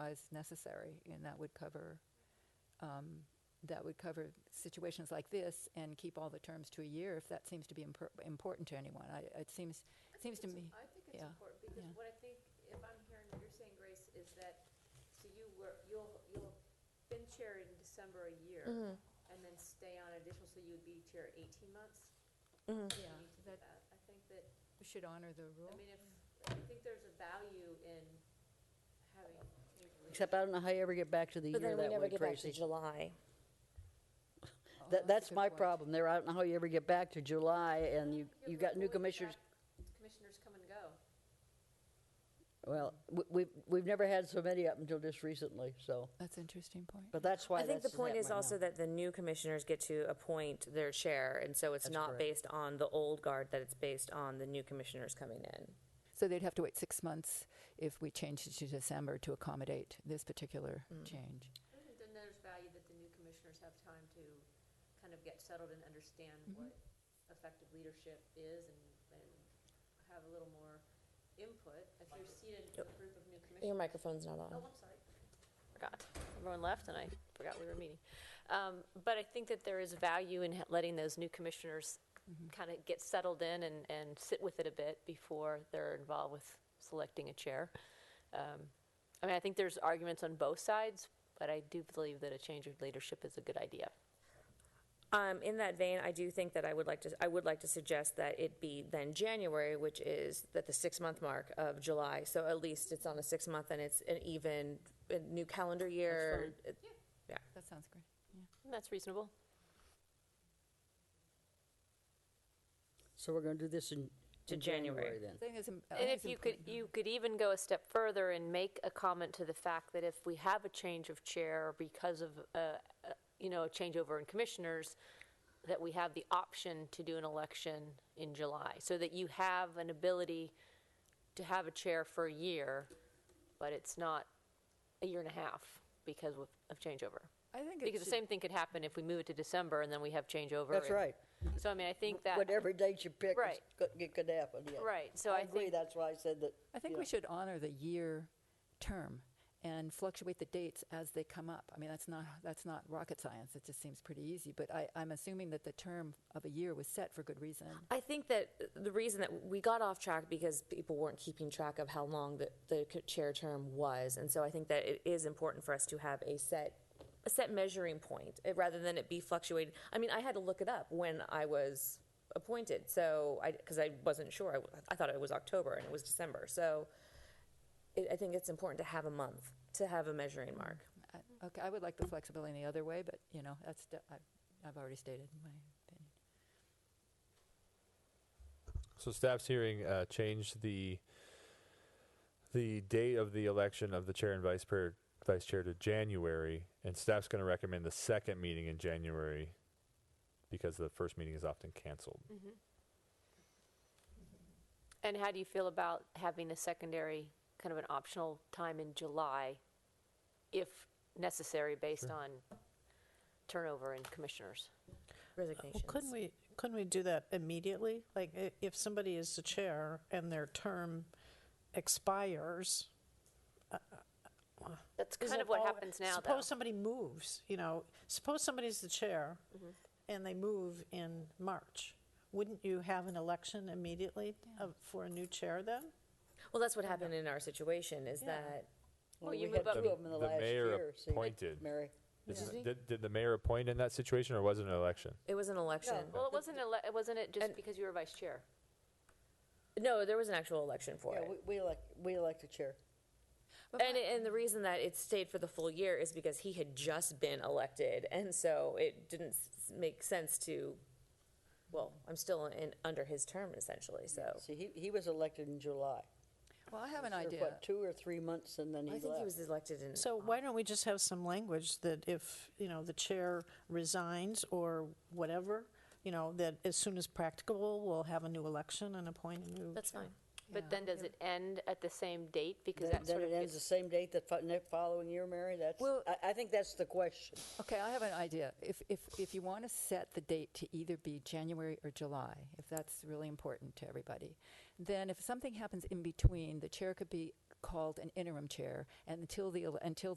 as necessary, and that would cover, um, that would cover situations like this and keep all the terms to a year if that seems to be impor- important to anyone. I, it seems, I think seems to it's- me, I think it's yeah, important, because yeah. what I think, if I'm hearing what you're saying, Grace, is that, so you were, you'll, you'll been chair in December a year, Mm-hmm. Mm-hmm. and then stay on additional, so you'd be chair eighteen months? Mm-hmm. yeah, You need to do that, that. I think that, we should honor the rule. I mean, if, I think there's a value in having. Except I don't know how you ever get back to the But year then we that never way, get back to Tracy. July. Oh, That, a that's good my point. problem there. I don't know how you ever get back to July and you, You're you right, got new we'll get commissioners. back. Commissioners come and go. Well, we, we've, we've never had so many up until just recently, so, That's an interesting point. but that's why I think the that's point is happening also now. that the new commissioners get to appoint their chair, and so it's That's not correct. based on the old guard, that it's based on the new commissioners coming in. So they'd have to wait six months if we changed it to December to accommodate this particular change. I think Then there's value that the new commissioners have time to kind of get settled and understand what effective leadership is and, and have a little more input. If you're seated with a group of new Your commissioners. microphone's not Oh, on. I'm sorry. Forgot. Everyone left and I forgot we were meeting. Um, But I think that there is value in letting those new commissioners kind of get settled in and, and sit with it a bit before they're involved with selecting a chair. Um, I mean, I think there's arguments on both sides, but I do believe that a change of leadership is a good idea. Um, in that vein, I do think that I would like to, I would like to suggest that it be then January, which is that the six-month mark of July. So at least it's on a six-month and it's an even, a new calendar year. It- Yeah. That sounds great. That's reasonable. So we're gonna do this in, To in January January. then. I think it's im- I And think if it's you important. could, you could even go a step further and make a comment to the fact that if we have a change of chair because of, uh, uh, you know, a changeover in commissioners, that we have the option to do an election in July, so that you have an ability to have a chair for a year, but it's not a year and a half because of of changeover. I think it Because the should- same thing could happen if we move it to December and then we have changeover. That's and- right. So I mean, I think that. Whatever date you pick, it's Right. go- it could happen, yeah. Right, so I agree, think- that's why I said that. I think yeah. we should honor the year term and fluctuate the dates as they come up. I mean, that's not that's not rocket science. It just seems pretty easy. But I, I'm assuming that the term of a year was set for good reason. I think that the reason that we got off track because people weren't keeping track of how long the, the chair term was, and so I think that it is important for us to have a set a set measuring point eh, rather than it be fluctuated. I mean, I had to look it up when I was appointed, so I because I wasn't sure. I, w- I thought it was October and it was December, so it, I think it's important to have a month to have a measuring mark. I, okay, I would like the flexibility in the other way, but you know, that's de- I, I've already stated my opinion. So staff's hearing uh, changed the the date of the election of the chair and vice chair vice chair to January, and staff's going to recommend the second meeting in January because the first meeting is often canceled. And how do you feel about having a secondary, kind of an optional time in July, if necessary, based on turnover in commissioners? Resignations. Well, couldn't we, couldn't we do that immediately? Like, i- if somebody is the chair and their term expires. That's is kind it of what all- happens now, though. Suppose somebody moves, you know, suppose somebody's the chair Mm-hmm. and they move in March. Wouldn't you have an election immediately of- for a new chair then? Well, that's what happened in our situation. Is Yeah. that Well, you we move had up- two of them in the The last mayor year, see, appointed. Mary. Is- Did, did the mayor appoint in that situation, or was it an election? it was an election? Well, it wasn't, ele- wasn't it just And- because you were vice chair? No, there was an actual election for Yeah, it. we, we elect, we elect a chair. And, and the reason that it stayed for the full year is because he had just been elected, and so it didn't s- make sense to. Well, I'm still in under his term essentially, so See, he, he was elected in July. Well, I have an Served, idea. What, two or three months and then he I left. think he was elected in. So why don't we just have some language that if, you know, the chair resigns or whatever, you know, that as soon as practicable, we'll have a new election and appoint a new That's chair. fine. Yeah. But then does it end at the same date? Because Then that then sort of it ends the gets, same date the fo- ne- following year, Mary? That's, Well- I, I think that's the question. Okay, I have an idea. If, if, if you want to set the date to either be January or July, if that's really important to everybody, then if something happens in between, the chair could be called an interim chair, and until the ele- until